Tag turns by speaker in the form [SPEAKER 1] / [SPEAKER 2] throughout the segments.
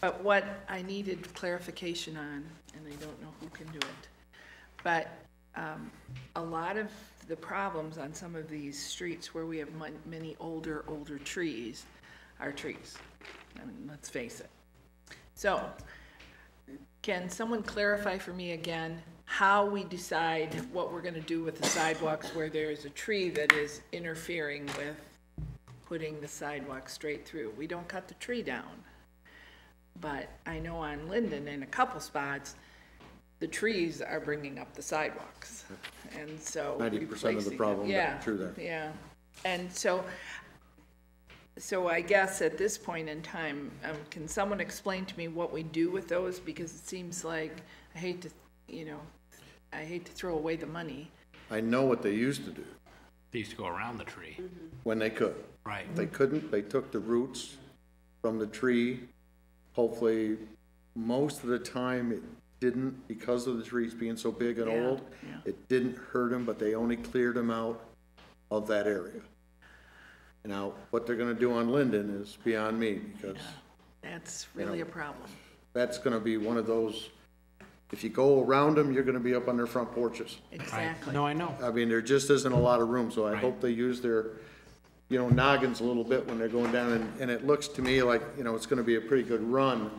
[SPEAKER 1] But what I needed clarification on, and I don't know who can do it, but um, a lot of the problems on some of these streets where we have mon- many older, older trees are trees. I mean, let's face it. So can someone clarify for me again how we decide what we're going to do with the sidewalks where there is a tree that is interfering with putting the sidewalk straight through? We don't cut the tree down. But I know on Linden, in a couple spots, the trees are bringing up the sidewalks, and so.
[SPEAKER 2] 90% of the
[SPEAKER 1] replacing them-
[SPEAKER 2] problem
[SPEAKER 1] Yeah,
[SPEAKER 2] through there.
[SPEAKER 1] Yeah, and so, so I guess at this point in time, um, can someone explain to me what we do with those? Because it seems like, I hate to, you know, I hate to throw away the money.
[SPEAKER 2] I know what they used to do,
[SPEAKER 3] They used to go around the tree,
[SPEAKER 2] when they could.
[SPEAKER 3] right?
[SPEAKER 2] If they couldn't, they took the roots from the tree. Hopefully, most of the time, it didn't, because of the trees being so big and
[SPEAKER 1] Yeah,
[SPEAKER 2] old,
[SPEAKER 1] yeah.
[SPEAKER 2] it didn't hurt them, but they only cleared them out of that area. Now, what they're gonna do on Linden is beyond me, because
[SPEAKER 1] That's really a problem.
[SPEAKER 2] that's gonna be one of those, if you go around them, you're gonna be up on their front porches.
[SPEAKER 3] Right.
[SPEAKER 1] Exactly.
[SPEAKER 3] No, I know.
[SPEAKER 2] I mean, there just isn't a lot of room, so I
[SPEAKER 3] Right.
[SPEAKER 2] hope they use their, you know, noggins a little bit when they're going down, and, and it looks to me like, you know, it's gonna be a pretty good run,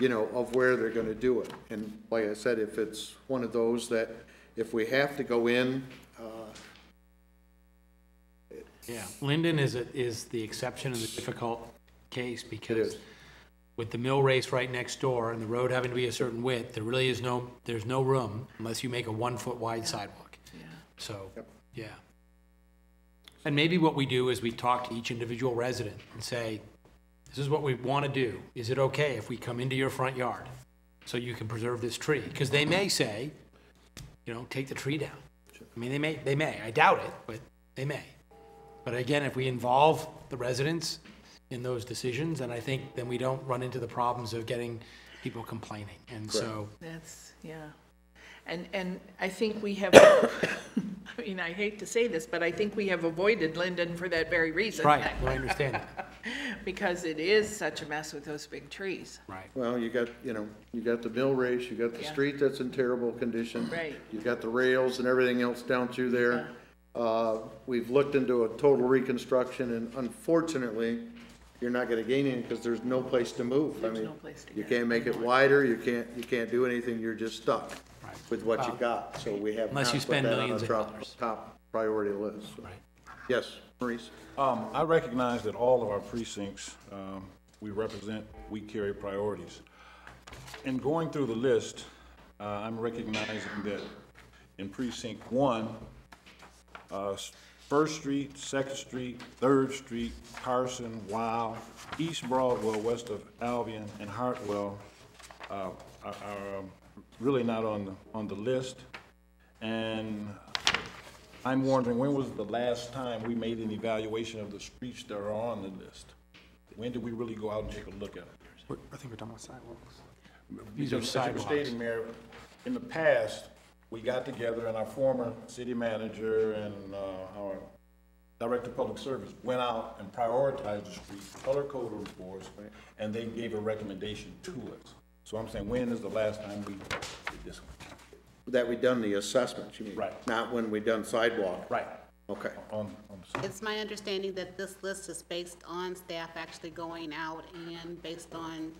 [SPEAKER 2] you know, of where they're gonna do it. And like I said, if it's one of those that, if we have to go in, uh,
[SPEAKER 3] Yeah, Linden is, a- is the exception and the difficult case because
[SPEAKER 2] is.
[SPEAKER 3] with the mill race right next door and the road having to be a certain width, there really is no, there's no room unless you make a one-foot wide sidewalk. So,
[SPEAKER 2] Yep.
[SPEAKER 3] yeah. And maybe what we do is we talk to each individual resident and say, this is what we want to do. Is it okay if we come into your front yard so you can preserve this tree? Because they may say, you know, take the tree down. I mean, they may, they may. I doubt it, but they may. But again, if we involve the residents in those decisions, then I think, then we don't run into the problems of getting people complaining. And so,
[SPEAKER 1] That's, yeah. And, and I think we have, I mean, I hate to say this, but I think we have avoided Linden for that very reason.
[SPEAKER 3] right, well, I understand that,
[SPEAKER 1] Because it is such a mess with those big trees.
[SPEAKER 3] right.
[SPEAKER 2] well, you got, you know, you got the mill race, you got the
[SPEAKER 1] Yeah.
[SPEAKER 2] street that's in terrible condition.
[SPEAKER 1] Right.
[SPEAKER 2] You've got the rails and everything else down through there. Uh, we've looked into a total reconstruction, and unfortunately, you're not gonna gain any, because there's no place to move. I
[SPEAKER 1] There's
[SPEAKER 2] mean,
[SPEAKER 1] no place to
[SPEAKER 2] You
[SPEAKER 1] go.
[SPEAKER 2] can't make it wider, you can't, you can't do anything, you're just stuck
[SPEAKER 3] Right.
[SPEAKER 2] with what you
[SPEAKER 3] Well,
[SPEAKER 2] got, so we have not
[SPEAKER 3] unless you
[SPEAKER 2] put
[SPEAKER 3] spend
[SPEAKER 2] that on
[SPEAKER 3] millions
[SPEAKER 2] the
[SPEAKER 3] of
[SPEAKER 2] top,
[SPEAKER 3] dollars.
[SPEAKER 2] top priority list. so.
[SPEAKER 3] Right.
[SPEAKER 2] Yes, Maurice?
[SPEAKER 4] Um, I recognize that all of our precincts, um, we represent, we carry priorities. In going through the list, uh, I'm recognizing that in precinct one, uh, S- First Street, Second Street, Third Street, Carson, Wow, East Broadwell, west of Albion, and Hartwell, uh, are, are um, really not on, the on the list. And I'm wondering, when was the last time we made an evaluation of the streets that are on the list? When did we really go out and take a look at it?
[SPEAKER 5] I think we're talking about sidewalks.
[SPEAKER 3] These are
[SPEAKER 4] As you were
[SPEAKER 3] sidewalks.
[SPEAKER 4] stating, Mayor, in the past, we got together and our former city manager and, uh, our director of public service went out and prioritized the streets, color coded them for us, and they gave a recommendation to us. So I'm saying, when is the last time we did this one?
[SPEAKER 2] That we done the assessment, you mean?
[SPEAKER 4] Right.
[SPEAKER 2] Not when we done sidewalk?
[SPEAKER 4] Right.
[SPEAKER 2] Okay.
[SPEAKER 4] On, on the
[SPEAKER 6] It's my understanding that this list is based on staff actually going out and based on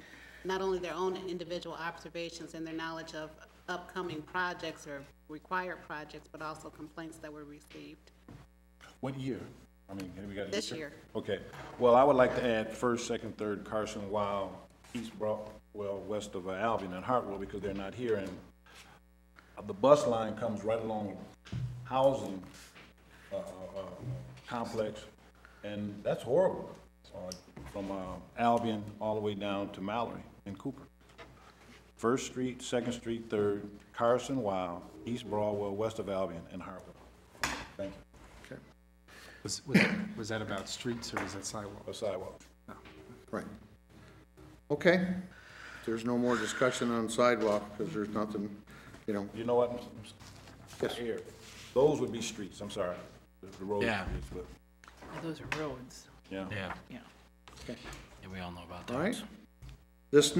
[SPEAKER 6] not only their own individual observations and their knowledge of upcoming projects or required projects, but also complaints that were received.
[SPEAKER 4] What year? I mean, have we got? a
[SPEAKER 6] This year.
[SPEAKER 4] Okay, well, I would like to add first, second, third, Carson, Wild, East Broadwell, west of uh, Albion and Hartwell, because they're not here, and the bus line comes right along housing, uh, uh, uh, complex, and that's horrible, uh, from, uh, Albion all the way down to Mallory and Cooper. First Street, Second Street, Third, Carson, Wild, East Broadwell, west of Albion and Hartwell. Thank you.
[SPEAKER 5] Was, was, was that about streets or was that sidewalks?
[SPEAKER 4] A sidewalk.
[SPEAKER 2] Right. Okay. There's no more discussion on sidewalk, because there's nothing, you know,
[SPEAKER 4] You know what? I'm s-
[SPEAKER 2] Yes.
[SPEAKER 4] Here, those would be streets, I'm sorry, the the road
[SPEAKER 3] Yeah.
[SPEAKER 4] streets, but,
[SPEAKER 1] Those are roads,
[SPEAKER 4] yeah.
[SPEAKER 3] Yeah,
[SPEAKER 1] yeah.
[SPEAKER 3] yeah, we all know about that.
[SPEAKER 2] all right? This